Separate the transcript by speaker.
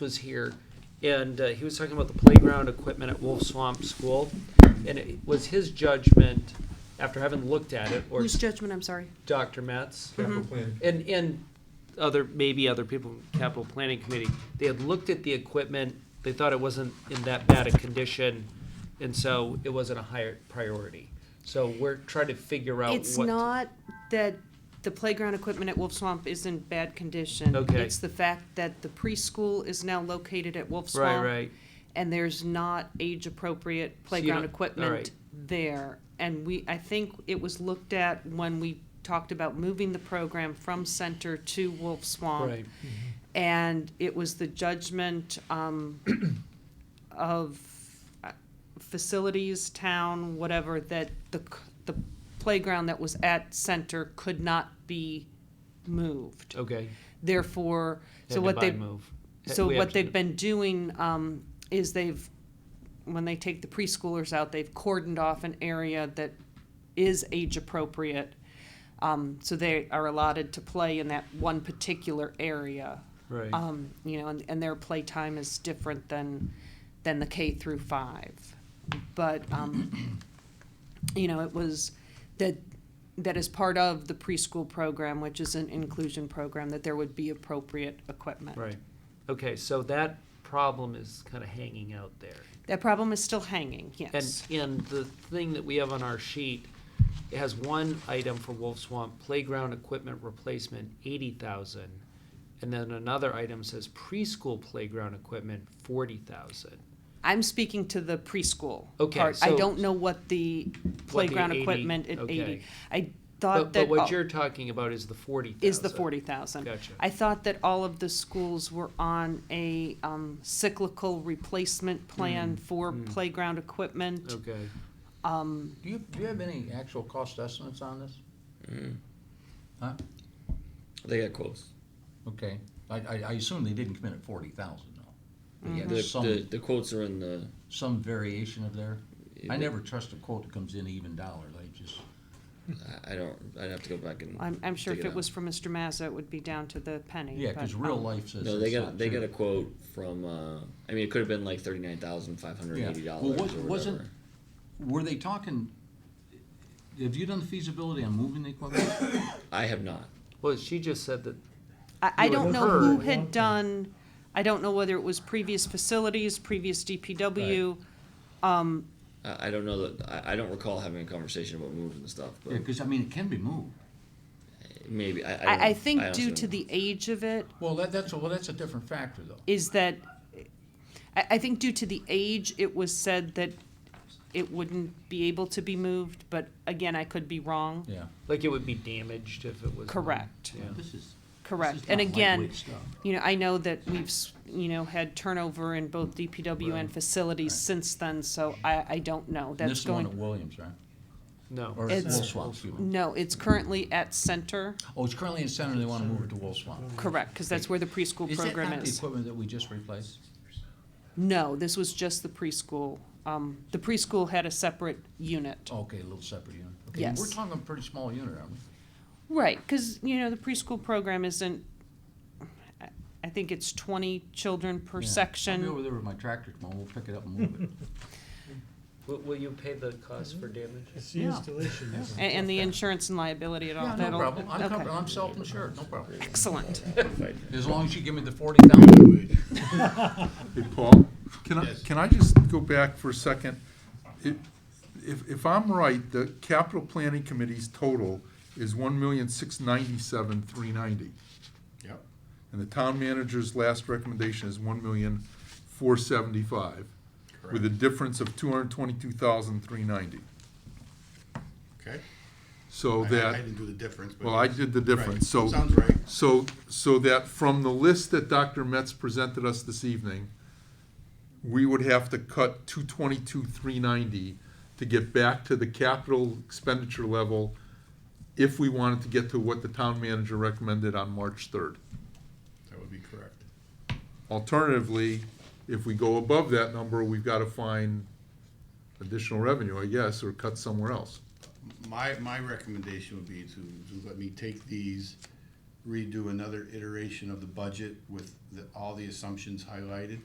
Speaker 1: was here, and uh, he was talking about the playground equipment at Wolf Swamp School, and it was his judgment, after having looked at it, or
Speaker 2: Whose judgment, I'm sorry?
Speaker 1: Dr. Matt's,
Speaker 3: capital plan.
Speaker 1: and, and other, maybe other people from capital planning committee, they had looked at the equipment, they thought it wasn't in that bad a condition, and so it wasn't a higher priority. So we're trying to figure out what.
Speaker 2: It's not that the playground equipment at Wolf Swamp is in bad condition.
Speaker 1: Okay.
Speaker 2: It's the fact that the preschool is now located at Wolf
Speaker 1: Right,
Speaker 2: Swamp.
Speaker 1: right,
Speaker 2: And there's not
Speaker 1: So
Speaker 2: age-appropriate
Speaker 1: you
Speaker 2: playground
Speaker 1: don't-
Speaker 2: equipment
Speaker 1: alright.
Speaker 2: there. And we, I think it was looked at when we talked about moving the program from center to Wolf Swamp.
Speaker 1: right.
Speaker 2: And it was the judgment um, of uh, facilities, town, whatever, that the, c- the playground that was at center could not be moved.
Speaker 1: Okay.
Speaker 2: Therefore,
Speaker 1: Had
Speaker 2: so
Speaker 1: to
Speaker 2: what
Speaker 1: buy
Speaker 2: they,
Speaker 1: move.
Speaker 2: so
Speaker 1: We
Speaker 2: what
Speaker 1: actually-
Speaker 2: they've been doing um, is they've, when they take the preschoolers out, they've cordoned off an area that is age appropriate. Um, So they are allotted to play in that one particular area
Speaker 1: Right.
Speaker 2: um, you know, and, and their playtime is different than, than the K through five. But, um, you know, it was that, that as part of the preschool program, which is an inclusion program, that there would be appropriate equipment.
Speaker 1: Right. Okay, so that problem is kind of hanging out there.
Speaker 2: That problem is still hanging,
Speaker 1: And,
Speaker 2: yes.
Speaker 1: and the thing that we have on our sheet, it has one item for Wolf Swamp, playground equipment replacement, eighty thousand. And then another item says preschool playground equipment, forty thousand.
Speaker 2: I'm speaking to the preschool
Speaker 1: Okay,
Speaker 2: part. I
Speaker 1: so-
Speaker 2: don't know what the playground
Speaker 1: 80
Speaker 2: equipment at
Speaker 1: okay.
Speaker 2: eighty. I
Speaker 1: But,
Speaker 2: thought
Speaker 1: but
Speaker 2: that,
Speaker 1: what
Speaker 2: all-
Speaker 1: you're Oh, talking about is the forty thousand.
Speaker 2: is the forty thousand.
Speaker 1: Gotcha.
Speaker 2: I thought that all of the schools were on a um, cyclical replacement plan for
Speaker 1: mm.
Speaker 2: playground equipment.
Speaker 1: Okay.
Speaker 2: Um,
Speaker 3: Do you, do you have any actual cost estimates on this? Huh?
Speaker 4: They got quotes.
Speaker 3: Okay, I, I, I assume they didn't come in at forty thousand though. They had
Speaker 4: The, the,
Speaker 3: some,
Speaker 4: the quotes are in the.
Speaker 3: some variation of there. I never trust a quote that comes in even dollars, I just,
Speaker 4: I- I don't. I'd have to go back and.
Speaker 2: I'm, I'm sure
Speaker 4: dig
Speaker 2: if it
Speaker 4: out.
Speaker 2: was for Mr. Mazza, it would be down to the penny.
Speaker 3: yeah,
Speaker 2: but,
Speaker 3: cause real
Speaker 2: um,
Speaker 3: life says.
Speaker 4: No, they
Speaker 3: it's
Speaker 4: got
Speaker 3: not
Speaker 4: they got
Speaker 3: true.
Speaker 4: a quote from. Uh, I mean, it could have been like thirty nine thousand five hundred eighty
Speaker 3: Yeah.
Speaker 4: dollars.
Speaker 3: Well, was-
Speaker 4: or
Speaker 3: wasn't-
Speaker 4: whatever.
Speaker 3: Were they talking, have you done the feasibility on moving the equipment?
Speaker 4: I have not.
Speaker 1: Well, she just said that,
Speaker 2: I, I
Speaker 1: you
Speaker 2: don't
Speaker 1: and
Speaker 2: know who
Speaker 1: her.
Speaker 2: had done, I don't know whether it was previous facilities, previous DPW.
Speaker 4: I, I don't know that. I, I don't recall having a conversation about moving the stuff, but
Speaker 3: Yeah, cause I mean, it can be moved.
Speaker 4: maybe I. I, don't
Speaker 2: I, I
Speaker 4: know.
Speaker 2: think
Speaker 4: honestly
Speaker 2: due
Speaker 4: don't
Speaker 2: to
Speaker 4: know.
Speaker 2: the age of it,
Speaker 3: Well, that, that's, a- well, that's a different factor though.
Speaker 2: is that, I, I think due to the age, it was said that it wouldn't be able to be moved, but again, I could be wrong.
Speaker 3: Yeah.
Speaker 1: like, it would be damaged if it was.
Speaker 2: Correct,
Speaker 1: Yeah.
Speaker 3: This is- this is
Speaker 2: correct. And
Speaker 3: not
Speaker 2: again,
Speaker 3: lightweight stuff.
Speaker 2: you know, I know that we've, s- you know, had turnover in both DPW and
Speaker 3: Right.
Speaker 2: facilities
Speaker 3: Right.
Speaker 2: since then, so I, I don't know.
Speaker 3: And This
Speaker 2: That's
Speaker 3: is the one
Speaker 2: going,
Speaker 3: at Williams, right?
Speaker 1: No.
Speaker 3: Or
Speaker 2: It's-
Speaker 3: Wolf Swamp, excuse me.
Speaker 2: no, it's currently at center,
Speaker 3: Oh, it's currently in center, they wanna move it to Wolf Swamp.
Speaker 2: correct, because that's where the preschool
Speaker 3: Is that
Speaker 2: program
Speaker 3: not the
Speaker 2: is.
Speaker 3: equipment that we just replaced?
Speaker 2: No, this was just the preschool. Um, the preschool had a separate unit.
Speaker 3: Okay, a little separate unit. Okay,
Speaker 2: Yes.
Speaker 3: We're talking a pretty small unit, aren't we?
Speaker 2: Right, because, you know, the preschool program isn't, I- I think it's twenty children per
Speaker 3: Yeah.
Speaker 2: section.
Speaker 3: I'll be over there with my tractor tomorrow, we'll pick it up and move it.
Speaker 1: Will, will you pay the cost for damage?
Speaker 5: It's
Speaker 3: Yeah.
Speaker 5: the installation.
Speaker 3: Yeah.
Speaker 5: is-
Speaker 2: And, and the insurance and liability at all?
Speaker 3: Yeah, no
Speaker 2: that'll-
Speaker 3: problem, I'm
Speaker 2: okay.
Speaker 3: covered, I'm self-insured, no problem.
Speaker 2: Excellent.
Speaker 3: As long as you give me the forty thousand.
Speaker 6: Hey, Paul, can I, can I just go back for a second? If, if- if I'm right, the capital planning committee's total is one million, six ninety-seven, three ninety.
Speaker 3: Yep.
Speaker 6: And the town manager's last recommendation is one million, four seventy-five, with a difference of two hundred twenty-two thousand, three ninety.
Speaker 7: Okay.
Speaker 6: So
Speaker 7: I- I-
Speaker 6: that.
Speaker 7: I didn't do the difference, but.
Speaker 6: Well, I did the difference, so.
Speaker 7: Right. Sounds right.
Speaker 6: So, so that from the list that Dr. Metz presented us this evening, we would have to cut two twenty-two, three ninety to get back to the capital expenditure level if we wanted to get to what the town manager recommended on March third.
Speaker 7: That would be correct.
Speaker 6: Alternatively, if we go above that number, we've gotta find additional revenue, I guess, or cut somewhere else.
Speaker 7: My, my recommendation would be to, to let me take these
Speaker 3: redo another iteration of the budget with the, all the assumptions highlighted?